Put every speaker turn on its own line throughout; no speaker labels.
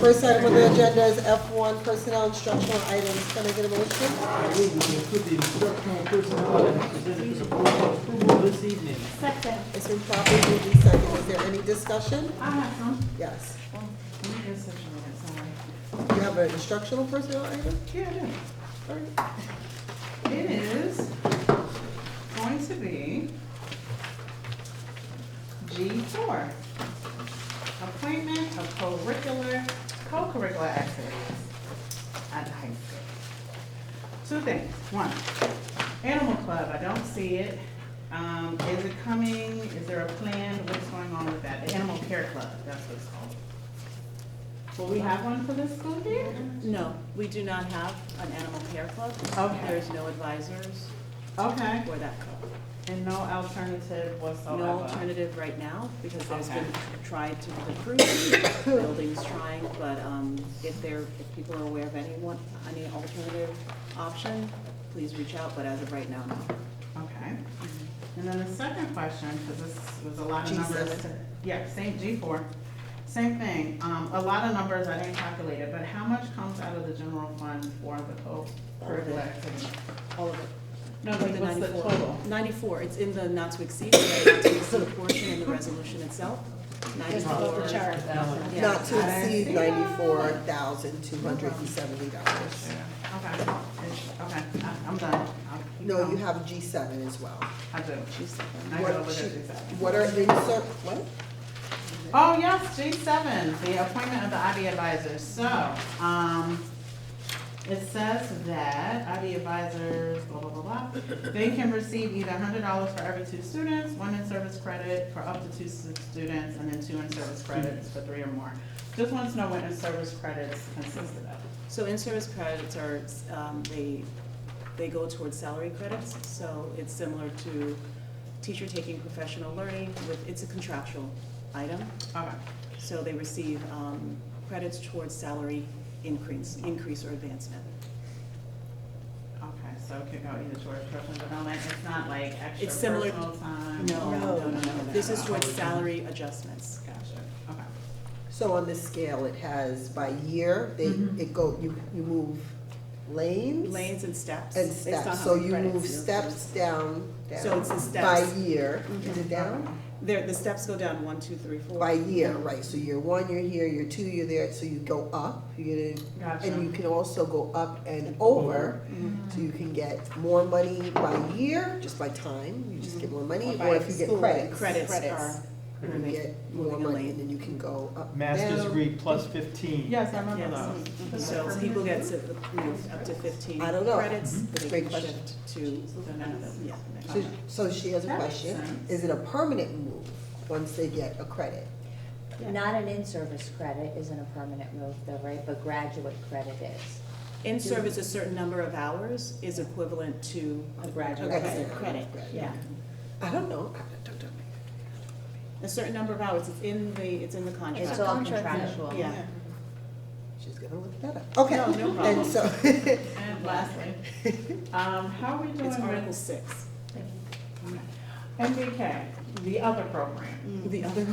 First item on the agenda is F1 Personnel Instructional Items. Can I get a motion?
I move we approve the instructional personnel items presented to the board for approval this evening.
Second.
It's been properly moved in second. Is there any discussion?
I have some.
Yes.
Oh, let me get a section of that, sorry.
You have an instructional personnel item?
Yeah, I do.
All right.
It is going to be G four. Appointment of co-curricular, co-curricular activities at the high school. Two things. One, Animal Club, I don't see it. Um, is it coming? Is there a plan? What's going on with that? The Animal Care Club, that's what it's called. Will we have one for this school year?
No, we do not have an animal care club.
Okay.
There's no advisors
Okay.
for that club.
And no alternative whatsoever?
No alternative right now, because there's
Okay.
been tried to recruit, buildings trying, but um, if there, if people are aware of anyone, any alternative option, please reach out, but as of right now, no.
Okay. And then the second question, because this was a lot of numbers.
G7.
Yeah, same, G four, same thing. Um, a lot of numbers I didn't calculate it, but how much comes out of the general fund for the co-curricular activity?
All of it.
No, like
The
what's the
94.
total?
Ninety-four, it's in the not to exceed, the not to exceed portion in the resolution itself. Ninety-four. Yeah.
Not to exceed
Yeah.
ninety-four thousand two hundred and seventy dollars.
Okay, it's- okay, I- I'm done. I'll keep
No, you
going.
have G seven as well.
I do. I
What
go with
she-
it, G seven.
What are insert, what?
Oh, yes, G seven, the appointment of the IB advisors. So, um, it says that IB advisors, blah, blah, blah, blah. They can receive either hundred dollars for every two students, one in-service credit for up to two s- students, and then two in-service credits for three or more. Just wants to know what in-service credits consisted of.
So in-service credits are, um, they, they go towards salary credits, so it's similar to teacher taking professional learning with, it's a contractual item.
Okay,
So they receive, um, credits towards salary increase, increase or advancement.
okay, so it could go either towards personal development, it's not like extra
It's similar-
personal time?
No, no, no,
no,
no, this is
no.
towards salary adjustments.
Gotcha, okay.
So on this scale, it has by year, they,
Mhm.
it go, you, you move lanes?
Mm-hmm. Lanes and steps.
And
based on
steps,
how
so
many
you
credits
move
you're-
steps down,
So
down,
it's the
by
steps. Mm-hmm.
year, is it down?
There, the steps go down one, two, three, four.
By year, right, so year one, you're here, year two, you're there, so you go up, you get,
Gotcha.
and you can also go up and over,
Mm-hmm.
so you can get more money by year, just by time, you just get more money,
Mhm. Or
or
by
if you get
school,
credits. Mm-hmm.
Credits are
You
moving.
get more
moving a
money,
lane.
and then you can go up,
Master's
down.
degree plus fifteen.
Yes, I remember
Yes.
those.
um, So people get to, you know, up to fifteen
I don't know.
credits, but they
Great
can
question.
shift to another, yeah. next
So,
one.
so she has a
That makes
question,
sense.
is it a permanent move, once they get a credit?
Not an in-service credit isn't a permanent move though, right, but graduate credit is.
In service, a certain number of hours is equivalent to.
A graduate
credit.
credit.
Credit, yeah.
I don't know, I don't- don't-
A certain number of hours, it's in the, it's in the contract.
It's all contractual.
Yeah.
She's gonna look that up. Okay.
No, no
And
problem.
so,
And lastly, um, how are we doing
It's Article
with
six.
MBK, the other program?
The other,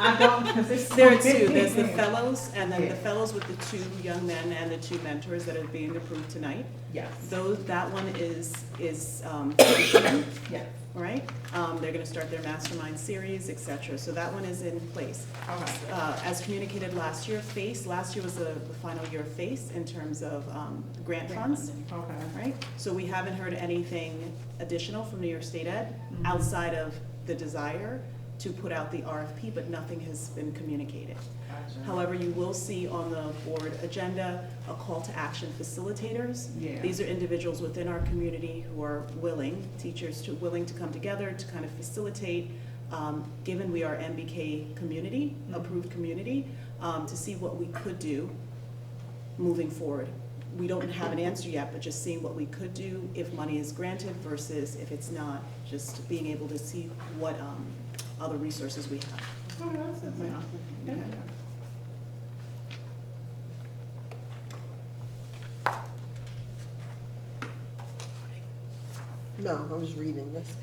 I don't, because it's.
Mm. there are two, there's the fellows, and then
Yeah.
the fellows with the two young men and the two mentors that are being approved tonight.
Yes,
Those, that one is, is, um, functioning.
yes.
right? Um, they're gonna start their mastermind series, et cetera, so that one is in place.
Okay.
Uh, as communicated last year, FACE, last year was the, the final year of FACE in terms of, um, grant funds,
Okay.
right? So we haven't heard anything additional from New York State Ed outside of the desire to put out the RFP, but nothing has been communicated.
Gotcha.
However, you will see on the board agenda a call to action facilitators.
Yeah.
These are individuals within our community who are willing, teachers to, willing to come together to kind of facilitate, um, given we are MBK community,
Mm-hmm.
approved community, um, to see what we could do moving forward. We don't have an answer yet, but just seeing what we could do if money is granted versus if it's not, just being able to see what, um, other resources we have.
Oh, that's it, man. Yeah.
no, I was reading this.